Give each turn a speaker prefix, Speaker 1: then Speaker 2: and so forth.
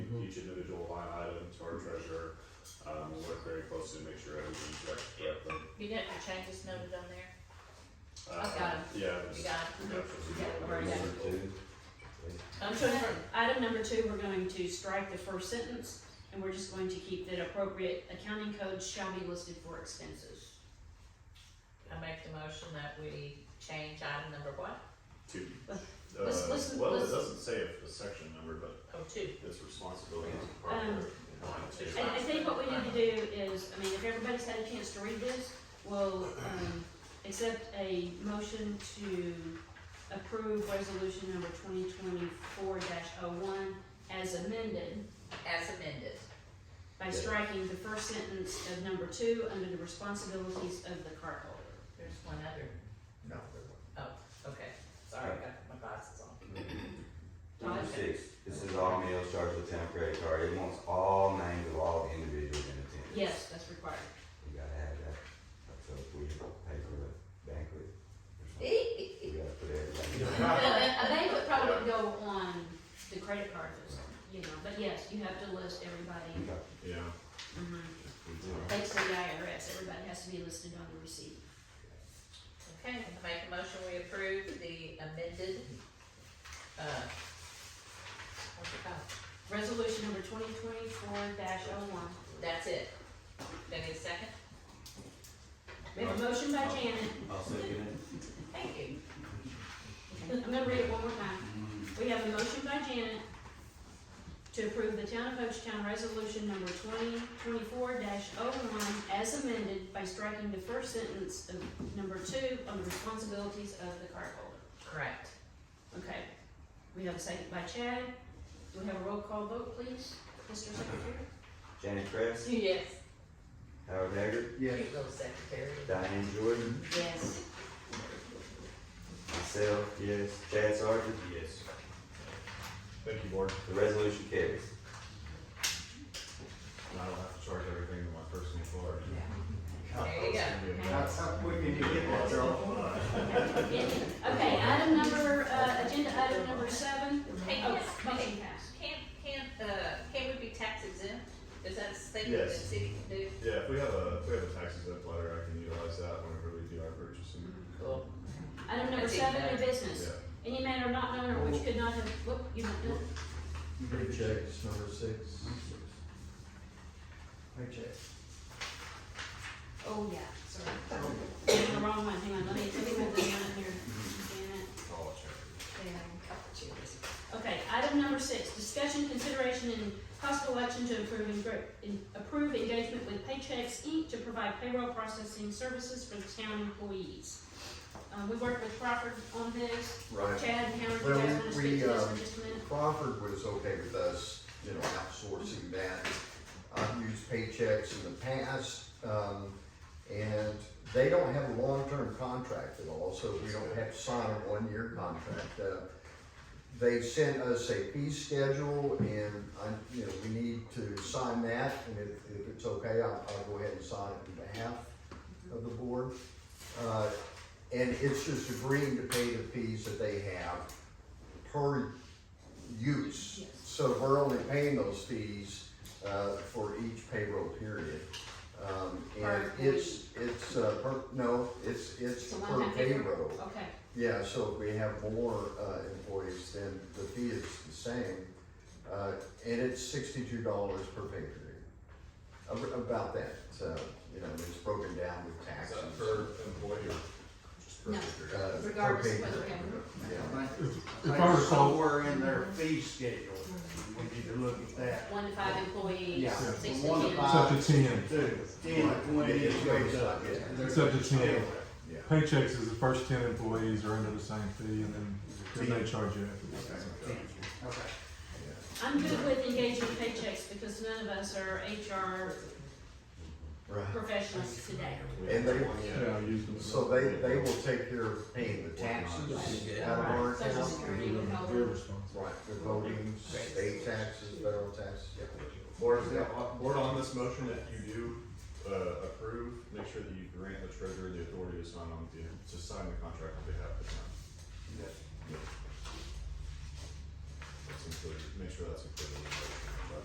Speaker 1: each individual line item to our treasurer. Um, we work very closely to make sure everything's checked correctly.
Speaker 2: You didn't have changes noted on there?
Speaker 1: Uh,
Speaker 2: I've got 'em.
Speaker 1: Yeah.
Speaker 2: You got 'em? Yeah, I've already got 'em.
Speaker 3: So for item number two, we're going to strike the first sentence, and we're just going to keep that appropriate accounting codes shall be listed for expenses.
Speaker 2: I make the motion that we change item number what?
Speaker 1: Two.
Speaker 3: Let's- let's-
Speaker 1: Uh, well, it
Speaker 3: let's-
Speaker 1: doesn't say if the section number, but
Speaker 2: Oh, two.
Speaker 1: it's responsibility of the
Speaker 3: Um,
Speaker 1: partner. Line two.
Speaker 3: I, I think what we need to do is, I mean, if everybody's had a chance to read this, we'll, um, accept a motion to approve resolution number twenty twenty-four dash oh one as amended
Speaker 2: As amended.
Speaker 3: by striking the first sentence of number two under the responsibilities of the cardholder.
Speaker 2: There's one other. Oh,
Speaker 4: No.
Speaker 2: Okay, sorry, I got my glasses on.
Speaker 5: Number six, this is all meals charged with temp credit card, it wants all names of all the individuals in attendance.
Speaker 3: Yes, that's required.
Speaker 5: You gotta have that, so if we pay for the banquet or something,
Speaker 2: A
Speaker 5: we gotta put everything.
Speaker 3: A banquet probably would go on the credit card, or something, you know, but yes, you have to list everybody.
Speaker 5: Okay.
Speaker 1: Yeah.
Speaker 3: Thanks to the IRS, everybody has to be listed on the receipt.
Speaker 2: Okay, I make a motion, we approve the amended, uh, what's it called?
Speaker 3: Resolution number twenty twenty-four dash oh one.
Speaker 2: That's it. Do I need a second?
Speaker 3: We have a motion by Janet,
Speaker 5: I'll second it.
Speaker 2: Thank you.
Speaker 3: I'm gonna read it one more time. We have a motion by Janet to approve the Town of Ochetown Resolution Number twenty twenty-four dash oh one as amended by striking the first sentence of number two on the responsibilities of the cardholder.
Speaker 2: Correct.
Speaker 3: Okay, we have a second by Chad. Do we have a roll call vote, please, Mr. Secretary?
Speaker 5: Janet Kress,
Speaker 2: Yes.
Speaker 5: Howard Haggard,
Speaker 4: Yes.
Speaker 2: You go, secretary.
Speaker 5: Diane Jordan,
Speaker 3: Yes.
Speaker 5: myself, yes, Chad Sargent,
Speaker 1: Yes. Thank you, board.
Speaker 5: the resolution carries.
Speaker 1: And I don't have to charge everything to my personal card.
Speaker 4: Oh,
Speaker 2: There you go.
Speaker 4: That's how quick you get that, Charles.
Speaker 3: Okay, item number, uh, agenda item number seven.
Speaker 2: Hey,
Speaker 3: Oh,
Speaker 2: yes,
Speaker 3: motion
Speaker 2: hey,
Speaker 3: passed.
Speaker 2: Can, can, uh, can we be tax exempt? Is that a thing that the
Speaker 1: Yes.
Speaker 2: city can do?
Speaker 1: Yeah, if we have a, if we have a tax exempt letter, I can utilize that whenever we do our purchasing.
Speaker 2: Cool.
Speaker 3: Item number seven, new business.
Speaker 1: Yeah.
Speaker 3: Any matter not known or which could not have, whoop, you don't know.
Speaker 4: Paychecks, number six. Paychecks.
Speaker 3: Oh, yeah, sorry. Did The wrong one, hang on, let me, let me move this one in here. Damn
Speaker 1: All charity.
Speaker 3: it. Yeah. Okay, item number six, discussion, consideration, and possible action to improve, engr- in- approve engagement with Paychecks Inc. to provide payroll processing services for the town employees. Um, we worked with Crawford on this,
Speaker 4: Right.
Speaker 3: Chad and Howard, you
Speaker 4: Well,
Speaker 3: guys wanna
Speaker 4: we-
Speaker 3: speak to this
Speaker 4: we, um,
Speaker 3: for just a minute?
Speaker 4: Crawford was okay with us, you know, outsourcing that. I've used paychecks in the past, um, and they don't have a long-term contract at all, so we don't have to sign a one-year contract. Uh, They sent us a fee schedule and I, you know, we need to sign that and if, if it's okay, I'll, I'll go ahead and sign it on behalf of the board. Uh, and it's just agreeing to pay the fees that they have per use.
Speaker 3: Yes.
Speaker 4: So we're only paying those fees, uh, for each payroll period. Um, and
Speaker 3: Per
Speaker 4: it's, it's, uh, per, no, it's, it's
Speaker 3: It's a
Speaker 4: per
Speaker 3: one-time payroll.
Speaker 4: payroll.
Speaker 3: Okay,
Speaker 4: Yeah, so if we have more, uh, employees, then the fee is the same, uh, and it's sixty-two dollars per pay period. Ab- About that, so, you know, it's broken down with
Speaker 1: Is
Speaker 4: taxes.
Speaker 1: that per employee or just per
Speaker 3: No.
Speaker 1: figure?
Speaker 4: Uh, per
Speaker 3: regardless
Speaker 4: pay
Speaker 3: of whether we
Speaker 4: period.
Speaker 3: have
Speaker 4: Yeah,
Speaker 6: If I recall. Somewhere in their fee schedule, we need to look at that.
Speaker 3: one to five employees,
Speaker 6: Yeah.
Speaker 3: six to ten.
Speaker 4: From one to five.
Speaker 6: It's
Speaker 4: Uh,
Speaker 6: up to ten.
Speaker 4: two.
Speaker 6: Ten, twenty,
Speaker 4: Yeah,
Speaker 6: it goes up.
Speaker 4: yeah.
Speaker 6: It's up to ten.
Speaker 4: yeah.
Speaker 6: Paychecks is the first ten employees are under the same fee and then, then they charge you afterwards.
Speaker 4: Okay.
Speaker 3: I'm good with engaging paychecks because none of us are HR
Speaker 4: Right.
Speaker 3: professionals today.
Speaker 4: And they-
Speaker 6: Yeah, I use them.
Speaker 4: So they, they will take care of paying the taxes out of our
Speaker 3: Social
Speaker 4: account.
Speaker 3: Security would help.
Speaker 6: They're responsible.
Speaker 4: Right, the voting, state taxes, federal taxes, yeah.
Speaker 1: Board, uh, board on this motion, if you do, uh, approve, make sure that you grant the treasurer the authority to sign on, the- to sign the contract on behalf of the town. Yeah. That's included, make sure that's included. in the motion.